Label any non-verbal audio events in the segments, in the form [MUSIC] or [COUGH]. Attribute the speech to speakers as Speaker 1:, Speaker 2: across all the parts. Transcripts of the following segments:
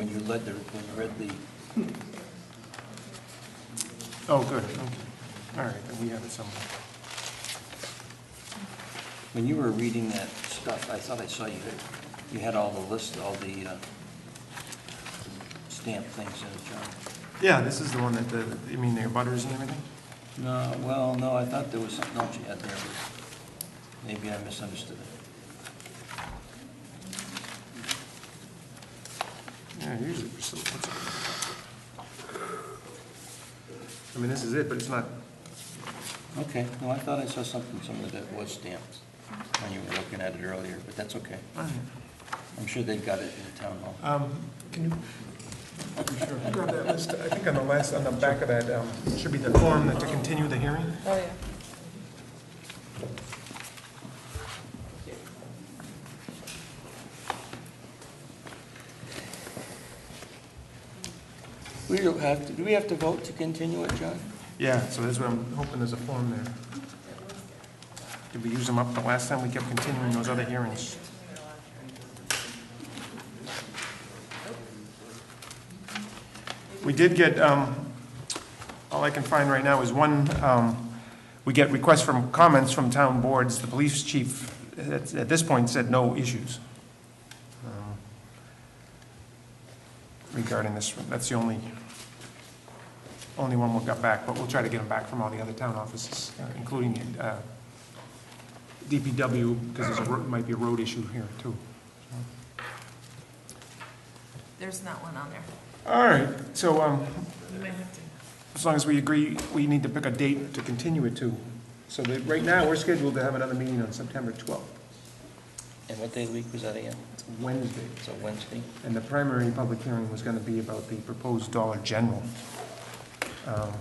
Speaker 1: read the, when you read the,
Speaker 2: Oh, good, okay. All right, then we have it somewhere.
Speaker 1: when you were reading that stuff, I thought I saw you, you had all the list, all the uh, stamped things in it, John.
Speaker 2: Yeah, this is the one that the, you mean the butters and everything?
Speaker 1: No, well, no, I thought there was something else you had there, but maybe I misunderstood it.
Speaker 2: Yeah, usually we're still, what's I mean, this is it, but it's not,
Speaker 1: Okay, no, I thought I saw something, somewhere that was stamped when you were looking at it earlier, but that's okay.
Speaker 2: all right.
Speaker 1: I'm sure they've got it in the town hall.
Speaker 2: Um, Can you grab that list? I think on the last, on the back of that, um, should be the form that to continue the hearing.
Speaker 3: Oh, yeah.
Speaker 1: We don't have, to- do we have to vote to continue it, John?
Speaker 2: Yeah, so that's what I'm hoping there's a form there. Did we use them up the last time? We kept continuing those other hearings. We did get, um, all I can find right now is one, um, we get requests from, comments from town boards. The police chief, at at this point, said no issues um, regarding this. That's the only only one we got back, but we'll try to get them back from all the other town offices, uh, including uh, DPW, because there might be a road issue here, too.
Speaker 3: There's not one on there.
Speaker 2: All right, so um,
Speaker 3: You might have to.
Speaker 2: as long as we agree, we need to pick a date to continue it to. So that, right now, we're scheduled to have another meeting on September 12th,
Speaker 1: And what day of the week was that again?
Speaker 2: It's Wednesday,
Speaker 1: It's a Wednesday?
Speaker 2: and the primary public hearing was going to be about the proposed Dollar General. Um,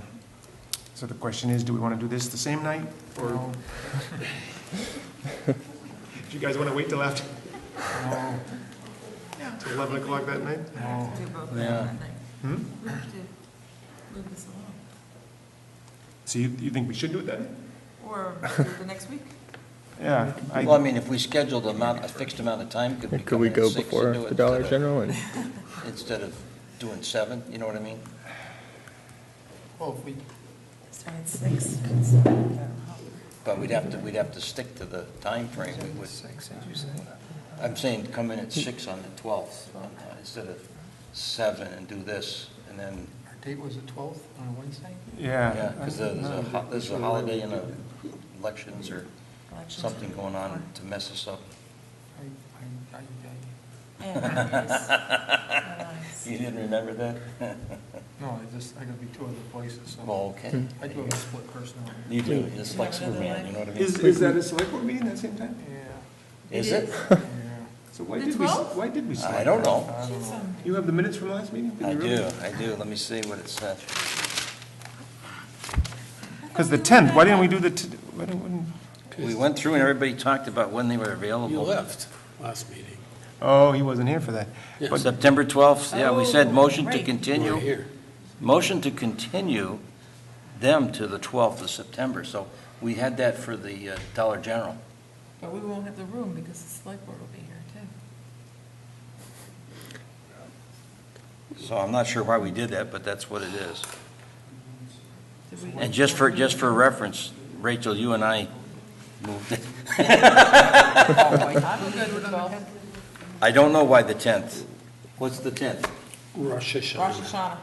Speaker 2: So the question is, do we want to do this the same night, or? Do you guys want to wait till after? Till 11 o'clock that night?
Speaker 3: Do both
Speaker 1: Oh,
Speaker 3: of
Speaker 1: Yeah.
Speaker 3: them, I think.
Speaker 2: Hmm?
Speaker 3: We have to move this along.
Speaker 2: So you, you think we should do it then?
Speaker 3: Or do it the next week.
Speaker 2: Yeah. I-
Speaker 1: Well, I mean, if we scheduled a amount, a fixed amount of time, could we
Speaker 4: Could
Speaker 1: come
Speaker 4: we
Speaker 1: in
Speaker 4: go
Speaker 1: at six
Speaker 4: before
Speaker 1: and do
Speaker 4: the
Speaker 1: it
Speaker 4: Dollar
Speaker 1: instead [LAUGHS]
Speaker 4: General and
Speaker 1: of- instead of doing seven, you know what I mean?
Speaker 2: Well, if we.
Speaker 3: Start at six. It's-
Speaker 1: But we'd have to, we'd have to stick to the time frame. we would. I'm saying come in at six on the twelfth, instead of seven and do this, and then,
Speaker 5: Our date was the 12th on a Wednesday?
Speaker 1: yeah,
Speaker 2: Yeah.
Speaker 1: because there's a, ho- there's a holiday and a elections or
Speaker 3: Elections.
Speaker 1: something going on to mess us up.
Speaker 5: I, I, I, I-
Speaker 3: [LAUGHS] And holidays. Holidays.
Speaker 1: [LAUGHS] You didn't remember that? [LAUGHS]
Speaker 5: no, I just, I gotta be two other places, so
Speaker 1: Well, okay.
Speaker 4: Hmm.
Speaker 5: I do have a split personality.
Speaker 1: You do, it's like Superman, you know what I mean?
Speaker 2: Is, is that a select board meeting at the same time?
Speaker 5: Yeah,
Speaker 1: Is it?
Speaker 5: yeah.
Speaker 2: So why
Speaker 3: The
Speaker 2: did we,
Speaker 3: 12th?
Speaker 2: why did we select?
Speaker 1: I don't
Speaker 2: that?
Speaker 1: know.
Speaker 5: I don't
Speaker 3: She's,
Speaker 5: know.
Speaker 3: um,
Speaker 2: You have the minutes from last meeting? Did
Speaker 1: I
Speaker 2: you really?
Speaker 1: do, I do, let me see what it said.
Speaker 2: Because the 10th, why didn't we do the, t- why didn't- wouldn't-
Speaker 1: We went through and everybody talked about when they were available.
Speaker 6: You left last meeting.
Speaker 2: oh, he wasn't here for that.
Speaker 1: But September 12th, yeah, we said
Speaker 3: Oh,
Speaker 1: motion to
Speaker 3: right.
Speaker 6: You were
Speaker 1: continue,
Speaker 6: here.
Speaker 1: motion to continue them to the 12th of September. So we had that for the uh, Dollar General.
Speaker 3: But we won't have the room because the select board will be here too.
Speaker 1: So I'm not sure why we did that, but that's what it is.
Speaker 3: Did we-
Speaker 1: And just for, just for reference, Rachel, you and I moved it. [LAUGHS]
Speaker 3: Oh, I'm good with twelve.
Speaker 1: I don't know why the 10th. What's the 10th?
Speaker 6: Rosh
Speaker 3: Rosh
Speaker 6: Hashanah.
Speaker 3: Hashanah,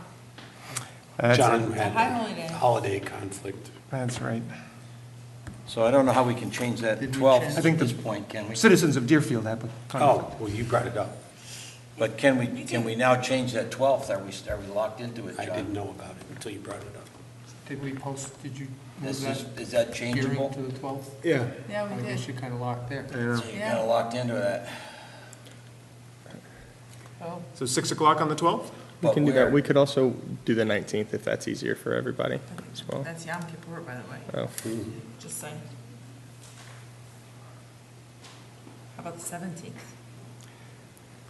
Speaker 2: That's it.
Speaker 6: John
Speaker 3: a high holy
Speaker 6: had
Speaker 3: day.
Speaker 6: a holiday conflict.
Speaker 2: That's right.
Speaker 1: So I don't know how we can change that
Speaker 5: Did we
Speaker 1: 12th
Speaker 5: change-
Speaker 2: I
Speaker 1: at
Speaker 2: think the-
Speaker 1: this point, can we?
Speaker 2: Citizens of Deerfield have a conflict.
Speaker 6: Oh, well, you brought it up.
Speaker 1: But can we, can we now change that 12th? Are we, are we locked into it,
Speaker 6: I
Speaker 1: John?
Speaker 6: didn't know about it until you brought it up.
Speaker 5: Did we post, did you move
Speaker 1: This is,
Speaker 5: that
Speaker 1: is that
Speaker 5: hearing
Speaker 1: changeable?
Speaker 5: to the 12th?
Speaker 2: Yeah.
Speaker 3: Yeah,
Speaker 5: I
Speaker 3: we
Speaker 5: guess
Speaker 3: did.
Speaker 5: you're kinda locked there.
Speaker 2: Yeah.
Speaker 1: So you're kind of locked into that.
Speaker 3: Oh,
Speaker 2: So 6 o'clock on the 12th?
Speaker 4: we
Speaker 1: But
Speaker 4: can do
Speaker 1: where-
Speaker 4: that. We could also do the 19th if that's easier for everybody as well.
Speaker 3: that's Yom Kippur, by the way,
Speaker 4: Oh,
Speaker 3: just saying. How about the seventeenth?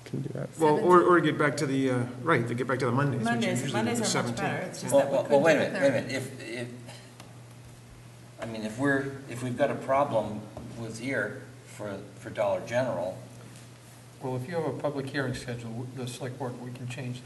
Speaker 4: can do that.
Speaker 2: Well, or, or get back to the, uh, right, to get back to the Mondays, which are
Speaker 3: Mondays,
Speaker 2: usually the
Speaker 3: Mondays are much
Speaker 2: 17th.
Speaker 3: better, it's just
Speaker 1: Well,
Speaker 3: that we
Speaker 1: well,
Speaker 3: could do
Speaker 1: well,
Speaker 3: it
Speaker 1: wait a minute, wait a
Speaker 3: there.
Speaker 1: minute, if, if, I mean, if we're, if we've got a problem with here for, for Dollar General,
Speaker 5: Well, if you have a public hearing scheduled, the select board, we can change